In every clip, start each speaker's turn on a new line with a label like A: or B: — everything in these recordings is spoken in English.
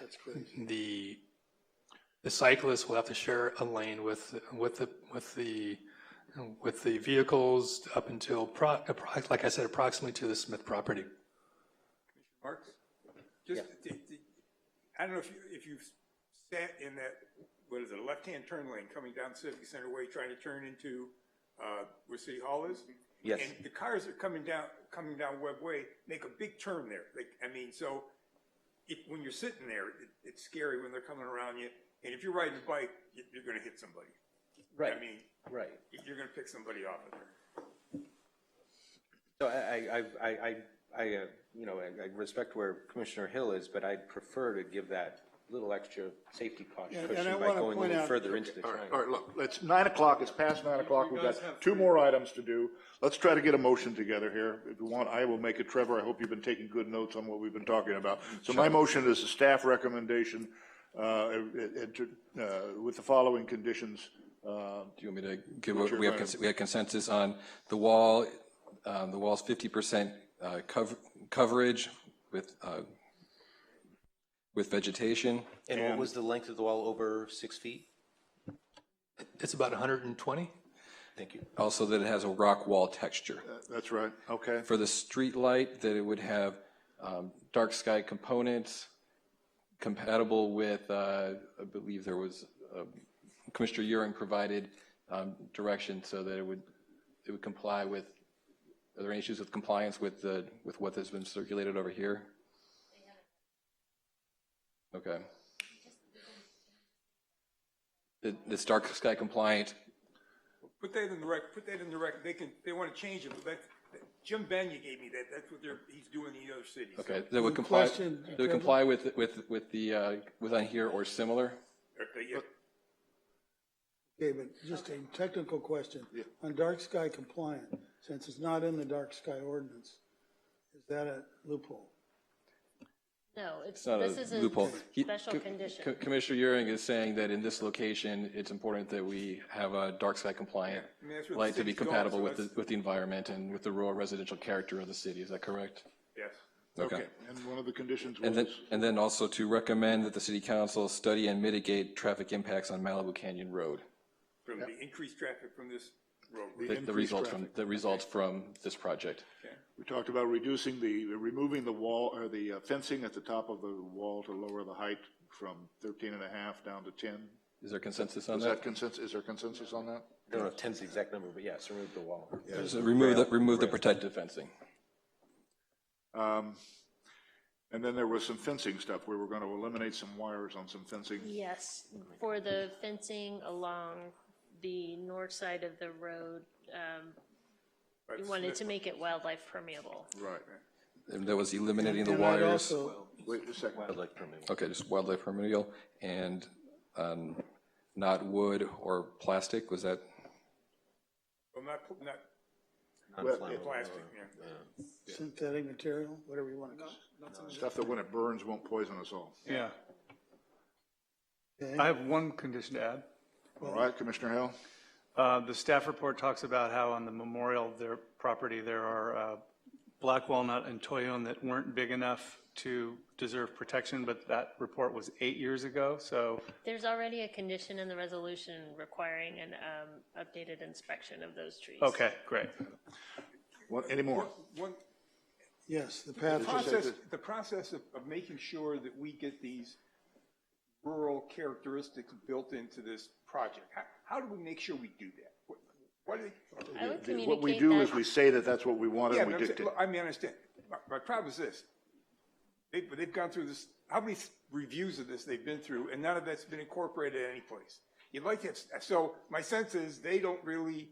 A: That's crazy.
B: the, the cyclists will have to share a lane with, with the, with the, with the vehicles up until, pro- appro- like I said, approximately to the Smith property.
C: Marks? Just, the- the- I don't know if you, if you've sat in that, what is it, left-hand turn lane coming down Civic Center Way, trying to turn into, uh, where City Hall is?
D: Yes.
C: And the cars that are coming down, coming down Webb Way, make a big turn there. Like, I mean, so if, when you're sitting there, it, it's scary when they're coming around you. And if you're riding a bike, you- you're gonna hit somebody.
D: Right,
C: I mean,
D: right.
C: you're gonna pick somebody off of there.
D: So I, I, I- I, I, I, uh, you know, I I respect where Commissioner Hill is, but I'd prefer to give that little extra safety caution
A: and I
D: by
A: wanna
D: going a
A: point
D: little
A: out-
D: further into the
A: All right,
D: triangle.
A: all right, look, it's nine o'clock, it's past nine o'clock, we've got two more items to do. Let's try to get a motion together here. If you want, I will make it. Trevor, I hope you've been taking good notes on what we've been talking about. So my motion is a staff recommendation, uh, it- it- uh, with the following conditions. uh,
E: Do you want me to give, a- we have, cons- we had consensus on the wall, um, the wall's fifty percent, uh, cov- coverage with, uh, with vegetation.
D: And what was the length of the wall, over six feet?
B: It's about 120?
D: Thank you.
E: Also that it has a rock wall texture.
A: That's right, okay.
E: For the street light, that it would have, um, dark sky components compatible with, uh, I believe there was, uh, Commissioner Euring provided, um, direction so that it would, it would comply with, are there any issues with compliance with the, with what has been circulated over here? Okay. It, it's dark sky compliant,
C: Put that in the rec, put that in the rec, they can, they want to change it, but that, that- Jim Benya gave me that, that's what they're, he's doing in the other cities. So
E: okay, that would comply,
F: question,
E: that would comply with, with, with the, uh, with on here or similar?
C: Okay, uh, yeah.
F: Okay, but just a technical question. On dark sky compliant, since it's not in the dark sky ordinance, is that a loophole?
G: No, it's,
E: It's not
G: this
E: a
G: is
E: loophole.
G: a
E: He-
G: special
E: Co- Co-
G: condition.
E: Commissioner Euring is saying that in this location, it's important that we have a dark sky compliant
C: I mean, that's what the
E: light to be
C: city's going,
E: compatible
C: so
E: with the,
C: that's-
E: with the environment and with the rural residential character of the city. Is that correct?
C: Yes.
E: Okay.
A: And one of the conditions
E: And then,
A: was,
E: and then also to recommend that the city council study and mitigate traffic impacts on Malibu Canyon Road.
C: From the increased traffic from this roadway.
E: The- The
A: Increased
E: results from, the results from this project.
A: we talked about reducing the, removing the wall, or the uh, fencing at the top of the wall to lower the height from 13 and a half down to 10.
E: Is there consensus on
A: Is that
E: that?
A: consensus, is there consensus on that?
D: I don't know if ten's the exact number, but yes, remove the wall.
E: So Remove the, remove the protective fencing.
A: Um, And then there was some fencing stuff, we were going to eliminate some wires on some fencing.
G: Yes, for the fencing along the north side of the road, um,
C: Right,
G: we wanted
C: Smith-
G: to make it wildlife permeable.
A: Right.
E: And that was eliminating the
F: And I'd
E: wires.
F: also-
A: Wait a second,
D: I'd like to remove.
E: Okay, just wildlife remedial and um, not wood or plastic, was that?
C: Well, not, pl- not uh,
D: non-flammable.
C: plastic, yeah.
F: Synthetic material, whatever you want to call
A: stuff that when it burns won't poison us all.
H: Yeah,
F: it.
H: I
F: Okay?
H: have one condition to add.
A: All right, Commissioner Hill?
H: Uh, The staff report talks about how on the memorial, their property, there are uh, black walnut and toyon that weren't big enough to deserve protection, but that report was eight years ago, so
G: There's already a condition in the resolution requiring an um, updated inspection of those trees.
H: Okay, great.
A: What, any more?
C: One,
F: Yes, the path.
C: process, the process of, of making sure that we get these rural characteristics built into this project, how, how do we make sure we do that? What, what do they,
G: I would
A: What we
G: communicate
A: do is we
G: that,
A: say that that's what we want
C: Yeah,
A: and
C: but
A: we
C: I'm saying-
A: dictate.
C: well, I mean, I understand. My, my problem is this. They, but they've gone through this, how many s- reviews of this they've been through, and none of that's been incorporated any place. You'd like to have, s- so my sense is they don't really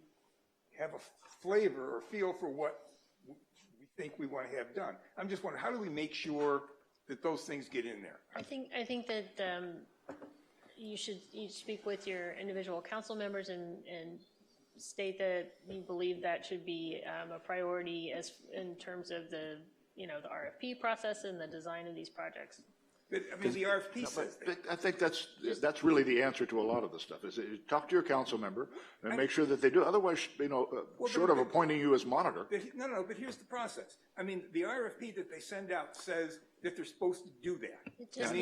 C: have a flavor or feel for what w- we think we want to have done. I'm just wondering, how do we make sure that those things get in there?
G: I think, I think that um, you should, you speak with your individual council members and, and state that you believe that should be um, a priority as, in terms of the, you know, the RFP process and the design of these projects.
C: But, I mean, the RFP says that.
A: I think that's, that's really the answer to a lot of this stuff, is that you talk to your council member and make sure that they do, otherwise, you know, uh,
C: but-
A: short of appointing you as monitor.
C: But he- No, no, but here's the process. I mean, the RFP that they send out says that they're supposed to do that.
G: It just